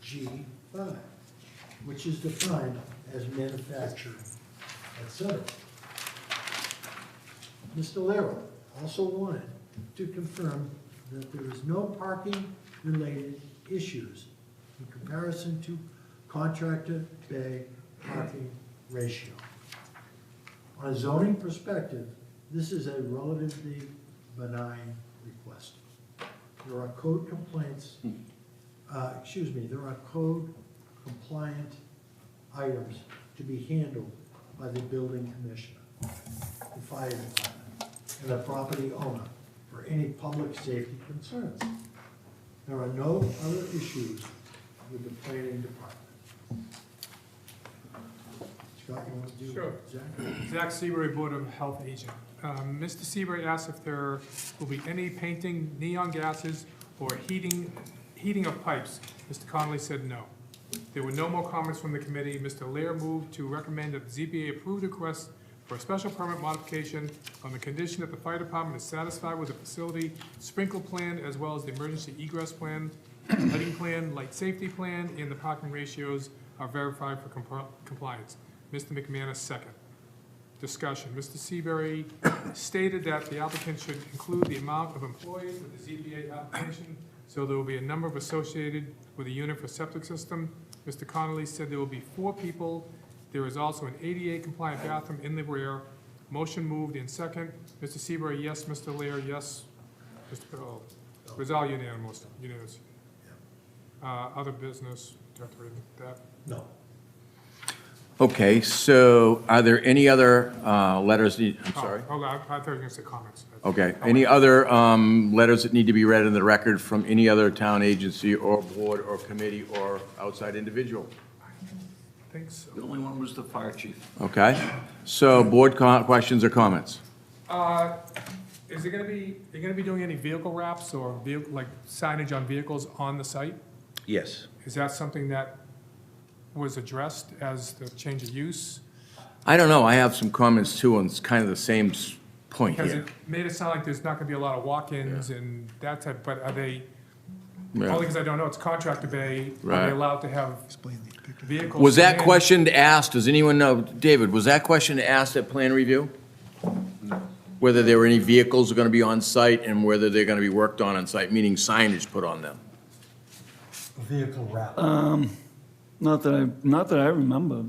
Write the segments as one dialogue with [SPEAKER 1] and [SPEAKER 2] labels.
[SPEAKER 1] G five, which is defined as manufacturing, et cetera. Mr. Lero also wanted to confirm that there is no parking-related issues in comparison to contractor bay parking ratio. On a zoning perspective, this is a relatively benign request. There are code complaints, uh, excuse me, there are code compliant items to be handled by the building commissioner, the fire department, and the property owner for any public safety concerns. There are no other issues with the planning department. Scott, you want to do?
[SPEAKER 2] Sure.
[SPEAKER 1] Exactly.
[SPEAKER 2] Zach Seabury, Board of Health Agent. Um, Mr. Seabury asked if there will be any painting, neon gases, or heating, heating of pipes. Mr. Connolly said no. There were no more comments from the committee. Mr. Lear moved to recommend that the ZBA approve the request for a special permit modification on the condition that the fire department is satisfied with the facility sprinkle plan as well as the emergency egress plan, lighting plan, light safety plan, and the parking ratios are verified for compl- compliance. Mr. McManus, second discussion. Mr. Seabury stated that the applicant should include the amount of employees with the ZBA application, so there will be a number of associated with a unit for septic system. Mr. Connolly said there will be four people. There is also an ADA compliant bathroom in the rear. Motion moved in second. Mr. Seabury, yes. Mr. Lear, yes. Mr. Bill, it was all unanimous, unanimous. Uh, other business, do I have to read that?
[SPEAKER 1] No.
[SPEAKER 3] Okay, so are there any other uh, letters, need- I'm
[SPEAKER 2] Oh,
[SPEAKER 3] sorry? Oh.
[SPEAKER 2] Hold on, I thought you were gonna say comments.
[SPEAKER 3] Okay, any other um, letters that need to be read in the record from any other town agency or board or committee or outside individual?
[SPEAKER 2] Thanks.
[SPEAKER 4] The only one was the fire chief.
[SPEAKER 3] Okay, so board co- questions or comments?
[SPEAKER 2] Uh, Is it gonna be, are you gonna be doing any vehicle wraps or vehicle, like signage on vehicles on the site?
[SPEAKER 3] Yes.
[SPEAKER 2] Is that something that was addressed as the change of use?
[SPEAKER 3] I don't know, I have some comments too on s- kind of the same s- point
[SPEAKER 2] Because
[SPEAKER 3] here.
[SPEAKER 2] it made it sound like there's not gonna be a lot of walk-ins and that type, but are they, only
[SPEAKER 3] Yeah.
[SPEAKER 2] because I don't know, it's contractor bay, are
[SPEAKER 3] Right.
[SPEAKER 2] they allowed to have vehicles?
[SPEAKER 3] Was that
[SPEAKER 2] in?
[SPEAKER 3] question asked, does anyone know, David, was that question asked at plan review? Whether there were any vehicles going to be on site and whether they're going to be worked on on site, meaning signage put on them?
[SPEAKER 1] Vehicle wrap.
[SPEAKER 5] Not that I, not that I remember.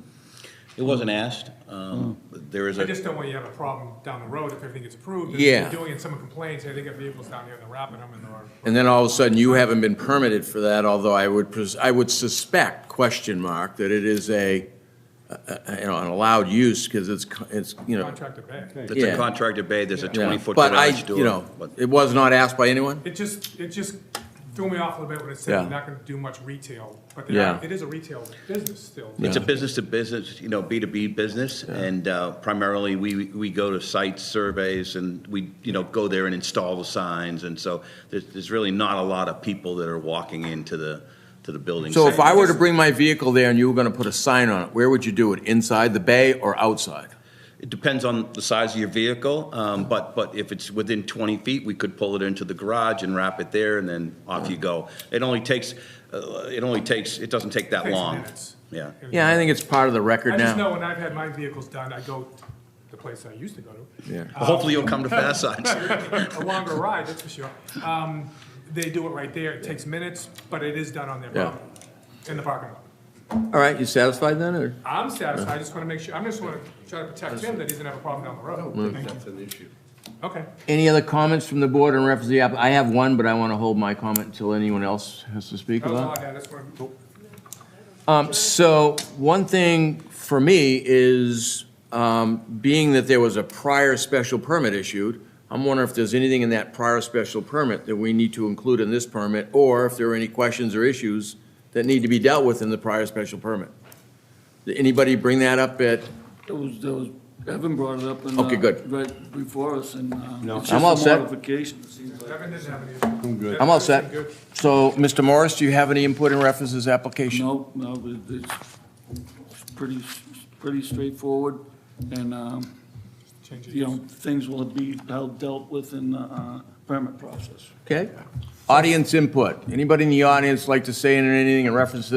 [SPEAKER 4] It wasn't asked. Um, but There is
[SPEAKER 2] I
[SPEAKER 4] a,
[SPEAKER 2] just don't want you to have a problem down the road if everything gets approved. and
[SPEAKER 3] Yeah.
[SPEAKER 2] Doing it, someone complains, hey, they got vehicles down here and they're wrapping them and they're.
[SPEAKER 3] And then all of a sudden, you haven't been permitted for that, although I would, pres- I would suspect, question mark, that it is a, a- a- you know, an allowed use, because it's, co- it's, you know.
[SPEAKER 2] Contractor bay.
[SPEAKER 4] it's
[SPEAKER 3] Yeah.
[SPEAKER 4] a contracted bay, there's a
[SPEAKER 3] yeah.
[SPEAKER 4] 20-foot
[SPEAKER 3] But I,
[SPEAKER 4] garage door.
[SPEAKER 3] you know,
[SPEAKER 4] but-
[SPEAKER 3] it was not asked by anyone?
[SPEAKER 2] It just, it just threw me off a little bit when it said
[SPEAKER 3] Yeah.
[SPEAKER 2] they're not gonna do much retail, but they are,
[SPEAKER 3] Yeah.
[SPEAKER 2] it is a retail business still.
[SPEAKER 4] It's a business-to-business, you know, B2B business, and uh, primarily, we, we go to site surveys, and we, you know, go there and install the signs, and so there's, there's really not a lot of people that are walking into the, to the building.
[SPEAKER 3] So if I were to
[SPEAKER 2] Just-
[SPEAKER 3] bring my vehicle there and you were gonna put a sign on it, where would you do it? Inside the bay or outside?
[SPEAKER 4] It depends on the size of your vehicle, um, but, but if it's within 20 feet, we could pull it into the garage and wrap it there, and then off you go. It only takes, uh, it only takes, it doesn't take that
[SPEAKER 2] Takes
[SPEAKER 4] long.
[SPEAKER 2] minutes.
[SPEAKER 4] Yeah.
[SPEAKER 3] Yeah, I think it's part of the record
[SPEAKER 2] I just
[SPEAKER 3] now.
[SPEAKER 2] know when I've had my vehicles done, I go to the place I used to go to.
[SPEAKER 3] Yeah.
[SPEAKER 4] Hopefully, you'll come to Fast Signs.
[SPEAKER 2] A longer ride, that's for sure. Um, they do it right there, it takes minutes, but it is done on their
[SPEAKER 3] Yeah.
[SPEAKER 2] property, in the parking lot.
[SPEAKER 3] All right, you satisfied then, or?
[SPEAKER 2] I'm satisfied, I just wanna make sure, I'm just wanna try to protect him that he doesn't have a problem down the road.
[SPEAKER 6] That's an issue.
[SPEAKER 2] Okay,
[SPEAKER 3] Any other comments from the board in reference to the app? I have one, but I want to hold my comment until anyone else has to speak
[SPEAKER 2] that was all
[SPEAKER 3] about.
[SPEAKER 2] I had, that's what,
[SPEAKER 3] Um, so, one thing for me is, um, being that there was a prior special permit issued, I'm wondering if there's anything in that prior special permit that we need to include in this permit, or if there are any questions or issues that need to be dealt with in the prior special permit. Did anybody bring that up at,
[SPEAKER 5] It was, there was, Evan brought it up and. uh,
[SPEAKER 3] Okay, good.
[SPEAKER 5] Right before us and. uh, No.
[SPEAKER 3] I'm all set.
[SPEAKER 5] Modification, it seems like.
[SPEAKER 2] Devin didn't have any. I'm good.
[SPEAKER 3] I'm all set. So, Mr. Morris, do you have any input in reference to this application?
[SPEAKER 5] No, no, it- it's it's pretty, s- pretty straightforward and, um,
[SPEAKER 2] Change of
[SPEAKER 5] you know,
[SPEAKER 2] use.
[SPEAKER 5] things will be held, dealt with in the uh, permit process.
[SPEAKER 3] Okay. Audience input. Anybody in the audience like to say anything in reference to